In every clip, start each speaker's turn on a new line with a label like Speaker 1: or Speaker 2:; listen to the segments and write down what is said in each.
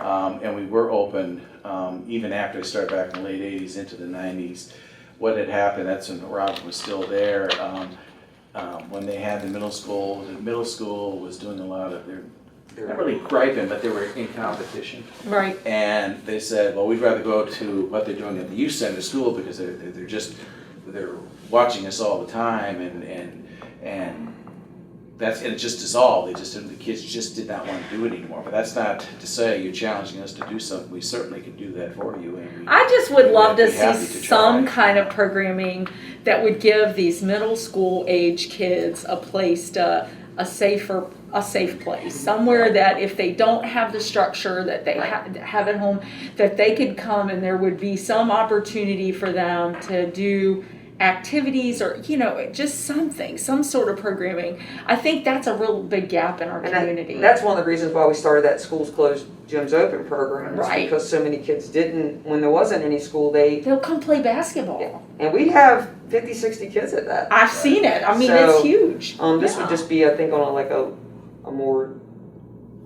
Speaker 1: Um, and we were open, um, even after I started back in the late eighties into the nineties. What had happened, that's when Robert was still there, um, um, when they had the middle school, the middle school was doing a lot of their, not really griping, but they were in competition.
Speaker 2: Right.
Speaker 1: And they said, well, we'd rather go to what they're doing at the youth center school because they're, they're they're just, they're watching us all the time and, and, and that's, and it just dissolved. They just, the kids just did not want to do it anymore. But that's not to say you're challenging us to do something. We certainly can do that for you and we-
Speaker 2: I just would love to
Speaker 1: We'd be happy
Speaker 2: see
Speaker 1: to
Speaker 2: some
Speaker 1: try.
Speaker 2: kind of programming that would give these middle school age kids a place to, a safer, a safe place. Somewhere that if they don't have the structure that they ha- have at home, that they could come and there would be some opportunity for them to do activities or, you know, just something, some sort of programming. I think that's a real big gap in our
Speaker 3: And that-
Speaker 2: community.
Speaker 3: That's one of the reasons why we started that schools closed, gyms open program. is
Speaker 2: Right.
Speaker 3: Because so many kids didn't, when there wasn't any school, they,
Speaker 2: They'll come play basketball.
Speaker 3: and we have 50, 60 kids at that.
Speaker 2: I've seen it. I mean,
Speaker 3: So,
Speaker 2: it's huge.
Speaker 3: Um, this would
Speaker 2: Yeah.
Speaker 3: just be, I think, on like a, a more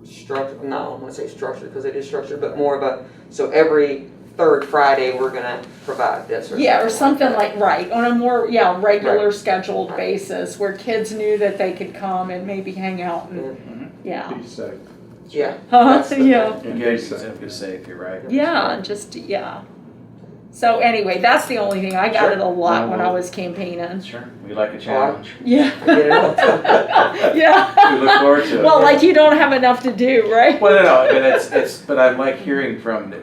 Speaker 3: structure, no, I don't wanna say structured, because it is structured, but more of a, so every third Friday, we're gonna provide this or.
Speaker 2: Yeah, or something
Speaker 3: that.
Speaker 2: like, right, on a more, yeah, regular scheduled
Speaker 3: Right.
Speaker 2: basis where kids knew that they could come and maybe hang out and, yeah.
Speaker 4: Be safe.
Speaker 3: Yeah.
Speaker 2: Huh,
Speaker 3: That's the
Speaker 2: yeah,
Speaker 1: Mhm. and get executive safe, you're right.
Speaker 2: yeah, and just, yeah. So anyway, that's the only thing. I got it a lot
Speaker 1: Sure.
Speaker 2: when I was campaigning.
Speaker 1: Sure, we like a challenge.
Speaker 3: Get it
Speaker 2: Yeah.
Speaker 3: all done.
Speaker 2: Yeah.
Speaker 1: We look forward to it.
Speaker 2: Well, like you don't have enough to do, right?
Speaker 1: Well, no, no, but it's, it's, but I like hearing from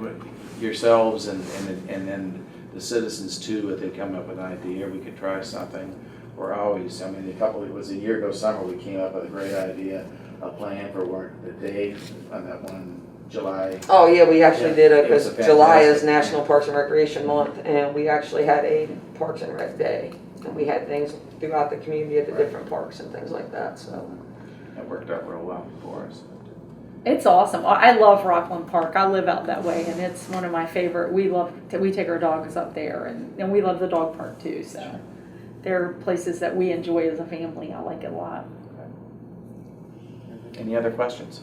Speaker 1: yourselves and, and, and then the citizens too, if they come up with an idea, we could try something. We're always, I mean, a couple, it was a year ago summer, we came up with a great idea, a plan for work, the day on that one July.
Speaker 3: Oh, yeah, we actually
Speaker 1: Yeah,
Speaker 3: did,
Speaker 1: it was
Speaker 3: because
Speaker 1: a
Speaker 3: July is
Speaker 1: fantastic-
Speaker 3: National Parks and Recreation Month, and we actually had a Parks and Rec Day. And we had things throughout the community at the
Speaker 1: Right.
Speaker 3: different parks and things like that, so.
Speaker 1: It worked out real well for us.
Speaker 2: It's awesome. I I love Rockland Park. I live out that way and it's one of my favorite. We love, to- we take our dogs up there and, and we love the dog park too, so. There are places that we enjoy as a family. I like it a lot.
Speaker 1: Any other questions?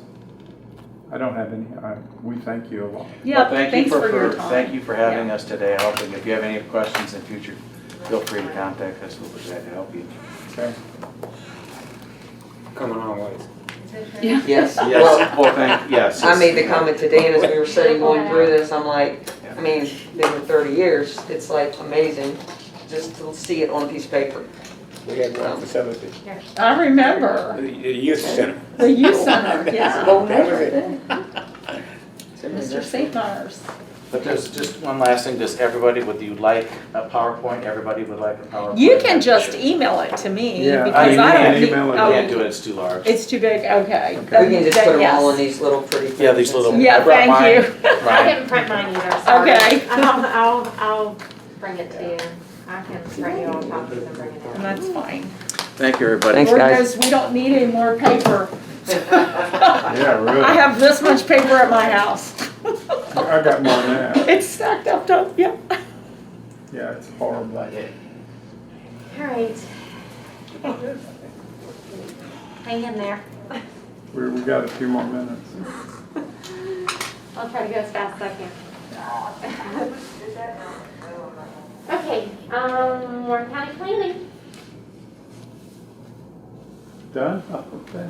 Speaker 4: I don't have any, I, we thank you a lot.
Speaker 2: Yeah,
Speaker 1: Well, thank you
Speaker 2: thanks for your time.
Speaker 1: Thank you for having us today, I hope, and if you have any questions in future, feel free to contact us, we'll be glad to help you.
Speaker 4: Okay.
Speaker 5: coming on ways.
Speaker 2: Yeah.
Speaker 3: Yes, well,
Speaker 1: Yes, well, thank, yes.
Speaker 3: I made the
Speaker 1: it's-
Speaker 3: comment to Dan as we were sitting going through this, I'm like, I mean, been for thirty years, it's like amazing just to see it on a piece of paper.
Speaker 5: We had one facility.
Speaker 2: I remember
Speaker 5: The the youth center.
Speaker 2: the youth center, yeah.
Speaker 3: Well,
Speaker 5: That was it.
Speaker 2: Mr. St. Myers.
Speaker 1: But there's just one last thing, does everybody, would you like a PowerPoint? Everybody would like a PowerPoint?
Speaker 2: You can just email it to me
Speaker 4: Yeah,
Speaker 2: because
Speaker 1: I
Speaker 2: I
Speaker 1: can
Speaker 2: don't need,
Speaker 4: email it.
Speaker 1: I can't
Speaker 2: oh,
Speaker 1: do it, it's too large.
Speaker 2: it's too big, okay.
Speaker 3: We can just put them all
Speaker 2: Yes.
Speaker 3: in these little pretty things.
Speaker 1: Yeah, these little- I
Speaker 2: Yeah,
Speaker 1: brought
Speaker 2: thank you.
Speaker 6: I
Speaker 1: Right.
Speaker 6: didn't print mine either, sorry.
Speaker 2: Okay.
Speaker 6: I'll, I'll, I'll bring it to you. I can print you all copies and bring it
Speaker 2: And
Speaker 6: in.
Speaker 2: that's fine.
Speaker 1: Thank you, everybody.
Speaker 3: Thanks,
Speaker 2: Lord
Speaker 3: guys.
Speaker 2: knows we don't need any more paper. I
Speaker 4: Yeah, really.
Speaker 2: have this much paper at my house.
Speaker 4: I got more now.
Speaker 2: It's stacked up, don't you?
Speaker 4: Yeah, it's horrible.
Speaker 6: All right. Hang in there.
Speaker 4: We, we got a few more minutes.
Speaker 6: I'll try to go as fast as I can. Okay, um, Warren County Planning.
Speaker 4: Done? Oh, Okay.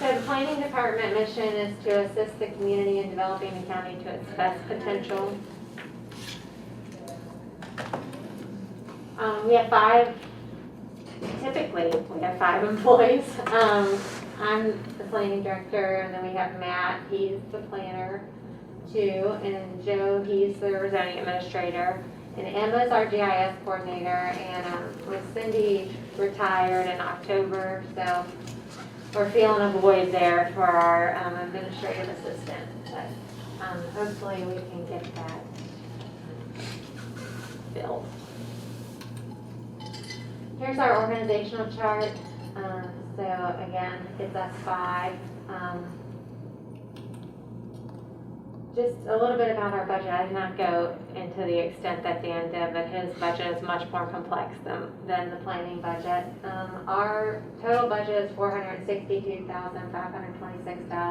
Speaker 6: So the planning department mission is to assist the community in developing the county to its best potential. Um, we have five, typically, we have five employees. Um, I'm the planning director, and then we have Matt, he's the planner too, and Joe, he's the zoning administrator. And Emma's our GIS coordinator, and, um, with Cindy retired in October, so we're feeling a void there for our um, administrative assistant, but um, hopefully we can get that filled. Here's our organizational chart. Um, So again, it's us five. Um, Just a little bit about our budget. I did not go into the extent that Dan did, but his budget is much more complex than, than the planning budget. Um, Our total budget is four hundred sixty-two thousand, five hundred twenty-six dollars.